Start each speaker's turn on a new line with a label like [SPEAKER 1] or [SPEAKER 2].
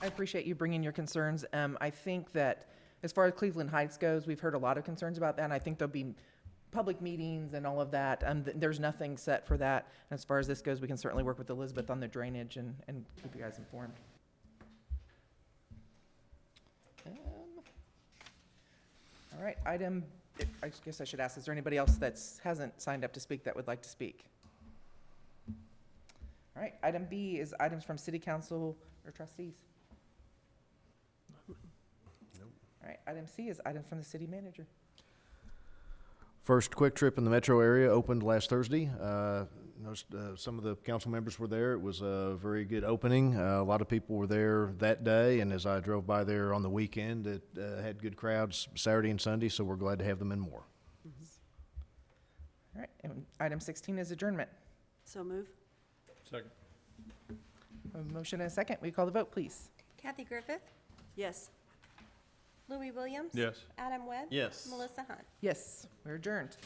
[SPEAKER 1] I appreciate you bringing your concerns. Um, I think that as far as Cleveland Heights goes, we've heard a lot of concerns about that, and I think there'll be public meetings and all of that. Um, th- there's nothing set for that. And as far as this goes, we can certainly work with Elizabeth on the drainage and, and keep you guys informed. Um, All right, item, I guess I should ask, is there anybody else that's, hasn't signed up to speak that would like to speak? All right, item B is items from city council or trustees. All right, item C is items from the city manager.
[SPEAKER 2] First quick trip in the metro area opened last Thursday. Uh, noticed, uh, some of the council members were there. It was a very good opening. Uh, a lot of people were there that day, and as I drove by there on the weekend, it uh, had good crowds Saturday and Sunday, so we're glad to have them in more.
[SPEAKER 1] All right, and item sixteen is adjournment.
[SPEAKER 3] So move.
[SPEAKER 4] Second.
[SPEAKER 1] A motion and a second. We call the vote, please?
[SPEAKER 5] Kathy Griffith,
[SPEAKER 3] Yes.
[SPEAKER 5] Louis Williams.
[SPEAKER 4] Yes.
[SPEAKER 5] Adam Webb.
[SPEAKER 4] Yes.
[SPEAKER 5] Melissa Hunt.
[SPEAKER 1] Yes, we're adjourned.